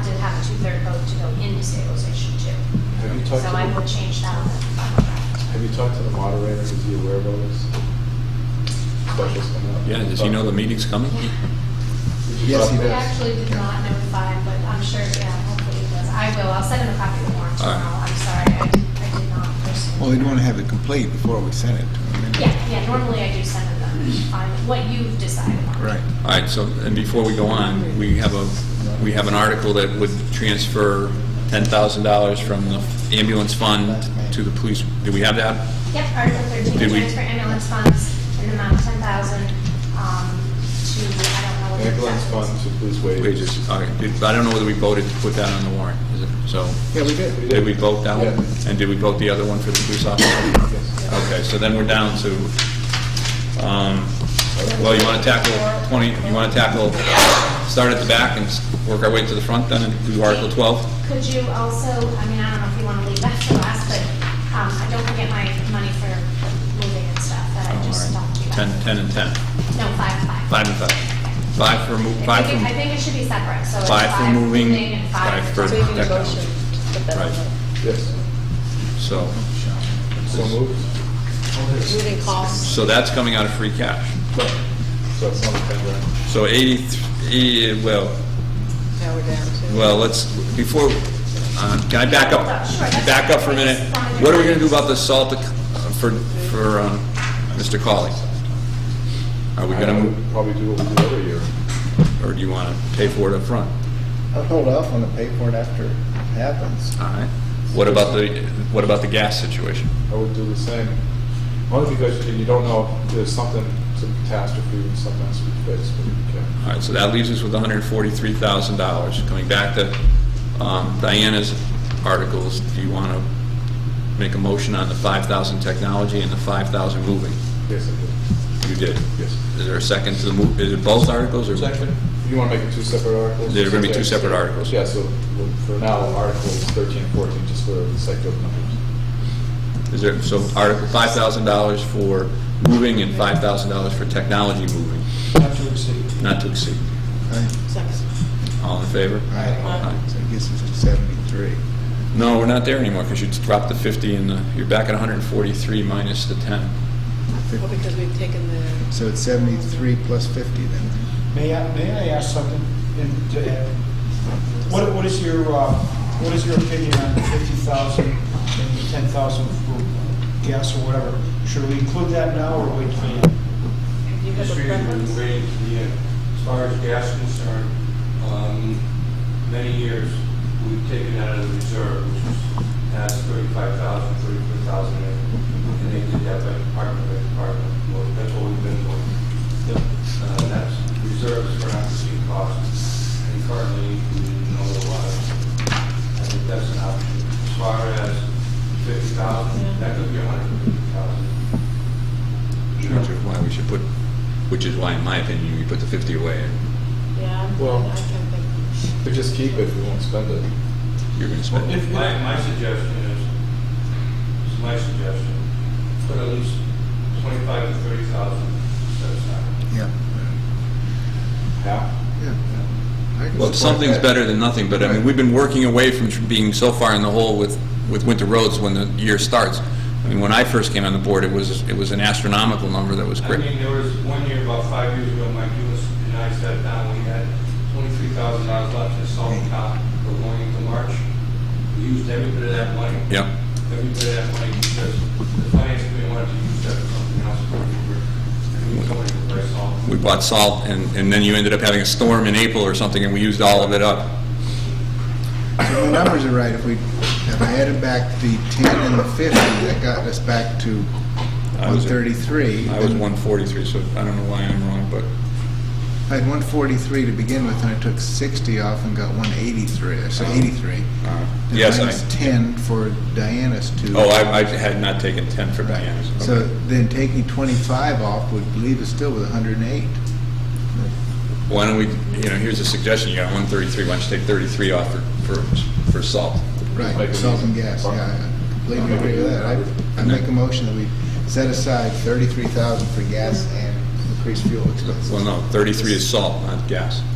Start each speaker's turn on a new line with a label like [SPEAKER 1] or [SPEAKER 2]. [SPEAKER 1] two-third vote to go into stabilization too.
[SPEAKER 2] Have you talked
[SPEAKER 1] So I would
[SPEAKER 2] to,
[SPEAKER 1] change that on
[SPEAKER 2] the-
[SPEAKER 1] the
[SPEAKER 2] have you talked to the moderator, is he aware of all this? Specials coming up?
[SPEAKER 3] Yeah, does he know the meeting's coming?
[SPEAKER 1] contract.
[SPEAKER 2] Did you
[SPEAKER 4] Yes,
[SPEAKER 2] talk
[SPEAKER 4] he
[SPEAKER 2] to-
[SPEAKER 1] We
[SPEAKER 4] does.
[SPEAKER 1] actually did not notify him, but I'm sure, yeah, hopefully he does. I will, I'll send him a copy of the warrant
[SPEAKER 3] All right.
[SPEAKER 1] tomorrow. I'm sorry, I I did not personally.
[SPEAKER 4] Well, we'd want to have it complete before we send it to them.
[SPEAKER 1] Yeah, yeah, normally I do send him the, on what you've decided on.
[SPEAKER 4] Right.
[SPEAKER 3] All right, so, and before we go on, we have a, we have an article that would transfer $10,000 from the ambulance fund to the police. Do we have that?
[SPEAKER 1] Yep, Article 13,
[SPEAKER 3] Did we-
[SPEAKER 1] transfer ambulance funds in the amount of 10,000 um, to, I don't know what. the
[SPEAKER 2] Ambulance
[SPEAKER 1] exact
[SPEAKER 2] fund
[SPEAKER 1] was.
[SPEAKER 2] to police wages.
[SPEAKER 3] Wages, all right. Did- I don't know whether we voted to put that on the warrant, is it? So,
[SPEAKER 4] Yeah, we did.
[SPEAKER 3] did we vote that one?
[SPEAKER 2] Yeah.
[SPEAKER 3] And did we vote the other one for the police officer?
[SPEAKER 2] Yes.
[SPEAKER 3] Okay, so then we're down to, um, well, you want to tackle 20, you want to tackle, start at the back and s- work our way to the front then and do Article 12?
[SPEAKER 1] Could you also, I mean, I don't know if you want to leave that for last, but um, I don't forget my money for moving and stuff that I just talked to you about.
[SPEAKER 3] 10, 10 and 10,
[SPEAKER 1] No, five, five.
[SPEAKER 3] 5 and 5. 5 for,
[SPEAKER 1] I
[SPEAKER 3] move.
[SPEAKER 1] think
[SPEAKER 3] 5
[SPEAKER 1] it- I
[SPEAKER 3] for,
[SPEAKER 1] think it should be separate, so it's
[SPEAKER 3] five for
[SPEAKER 1] five
[SPEAKER 3] moving,
[SPEAKER 1] moving and five.
[SPEAKER 3] five for-
[SPEAKER 5] So you need a
[SPEAKER 3] Technology.
[SPEAKER 5] motion to put that on the,
[SPEAKER 2] Yes,
[SPEAKER 3] so,
[SPEAKER 2] so moved.
[SPEAKER 5] moving costs.
[SPEAKER 3] so that's coming out of free cash.
[SPEAKER 2] So it's on the agenda.
[SPEAKER 3] So 80, well,
[SPEAKER 5] Now we're down to.
[SPEAKER 3] well, let's, before, uh, can I back up?
[SPEAKER 1] Sure, that's-
[SPEAKER 3] Back up for a minute. What are we going to do about the salt uh, for, for um, Mr. Colley? Are we
[SPEAKER 2] I
[SPEAKER 3] going
[SPEAKER 2] would Probably do what we do every year.
[SPEAKER 3] to, or do you want to pay for it up front?
[SPEAKER 4] I'll hold off on the pay for it after it happens.
[SPEAKER 3] All right. What about the, what about the gas situation?
[SPEAKER 2] I would do the same. Only because you don't know if there's something, some catastrophe and something has to be fixed, but you can.
[SPEAKER 3] All right, so that leaves us with $143,000. Coming back to um, Diana's articles, do you want to make a motion on the 5,000 technology and the 5,000 moving?
[SPEAKER 2] Yes, I
[SPEAKER 3] You did.
[SPEAKER 2] do. Yes.
[SPEAKER 3] Is there a second to the move, is it both articles or?
[SPEAKER 2] You want to make it two separate articles?
[SPEAKER 3] They're gonna be two separate articles.
[SPEAKER 2] Yeah, so well, for now, Articles 13 and 14, just for the sake of numbers.
[SPEAKER 3] Is there, so Article $5,000 for moving and $5,000 for technology moving,
[SPEAKER 6] Not to exceed.
[SPEAKER 3] not to exceed.
[SPEAKER 4] Right.
[SPEAKER 3] All in favor?
[SPEAKER 4] Right. So I guess it's seventy-three.
[SPEAKER 3] No, we're not there anymore because you dropped the 50 and the- you're back at 143 minus the 10.
[SPEAKER 5] Well, because we've taken the.
[SPEAKER 4] So it's seventy-three plus fifty then.
[SPEAKER 6] May I, may I ask something in- to add? What, what is your, uh, what is your opinion on the fifty thousand and the ten thousand for gas or whatever? Should we include that now or wait till the
[SPEAKER 5] Do
[SPEAKER 6] end?
[SPEAKER 5] you have a
[SPEAKER 7] Street
[SPEAKER 5] preference?
[SPEAKER 7] and waiting to the end. As far as gas is concerned, um, many years, we've taken out of the reserve, which was, has thirty-five thousand, thirty-four thousand in it. And they did that by department, by department, well, that's what we've been doing. Uh, that's reserves for unforeseen costs, and currently, we didn't know a lot. I think that's an option. As far as fifty thousand, that could be a hundred and fifty thousand.
[SPEAKER 3] Which is why we should put, which is why, in my opinion, you put the 50 away.
[SPEAKER 5] Yeah, I'm-
[SPEAKER 2] Well-
[SPEAKER 5] I can think.
[SPEAKER 2] But just keep it, we won't spend it.
[SPEAKER 3] You're going to spend it.
[SPEAKER 7] My, my suggestion is, it's my suggestion, put at least twenty-five to thirty thousand set aside.
[SPEAKER 4] Yeah.
[SPEAKER 2] Half?
[SPEAKER 4] Yeah. I can
[SPEAKER 3] Well,
[SPEAKER 4] support
[SPEAKER 3] something's
[SPEAKER 4] that.
[SPEAKER 3] better than nothing, but I mean,
[SPEAKER 4] Right.
[SPEAKER 3] we've been working away from tr- being so far in the hole with, with winter roads when the year starts. I mean, when I first came on the board, it was, it was an astronomical number that was
[SPEAKER 7] I
[SPEAKER 3] great.
[SPEAKER 7] mean, there was one year, about five years ago, Mike Lewis and I sat down, we had twenty-three thousand dollars left in salt and cop for going into March. We used every bit of that money.
[SPEAKER 3] Yep.
[SPEAKER 7] Every bit of that money, because the finance committee wanted to use that for something else, but we were, we were coming to buy salt.
[SPEAKER 3] We bought salt, and, and then you ended up having a storm in April or something, and we used all of it up.
[SPEAKER 4] So The numbers are right. If we, if I added back the ten and the fifty, that got us back to
[SPEAKER 3] I was-
[SPEAKER 4] one thirty-three.
[SPEAKER 3] I was 143, so I don't know why I'm wrong, but,
[SPEAKER 4] I had one forty-three to begin with, and I took sixty off and got one eighty-three, so eighty-three.
[SPEAKER 3] uh,
[SPEAKER 4] And
[SPEAKER 3] yes,
[SPEAKER 4] minus
[SPEAKER 3] I,
[SPEAKER 4] ten for Diana's two.
[SPEAKER 3] oh, I, I had not taken 10 for
[SPEAKER 4] Right.
[SPEAKER 3] Diana's.
[SPEAKER 4] So
[SPEAKER 3] Okay.
[SPEAKER 4] then taking 25 off would leave us still with 108.
[SPEAKER 3] Why don't we, you know, here's a suggestion, you got 133, why don't you take 33 off for, for, for salt?
[SPEAKER 2] Make
[SPEAKER 4] Right,
[SPEAKER 2] it
[SPEAKER 4] salt and
[SPEAKER 2] easy.
[SPEAKER 4] gas, yeah, I completely
[SPEAKER 2] Make it
[SPEAKER 4] agree with
[SPEAKER 2] easy.
[SPEAKER 4] that. I- I make a motion that we set aside 33,000 for gas and increased fuel expenses.
[SPEAKER 3] Well, no, 33 is salt, not gas.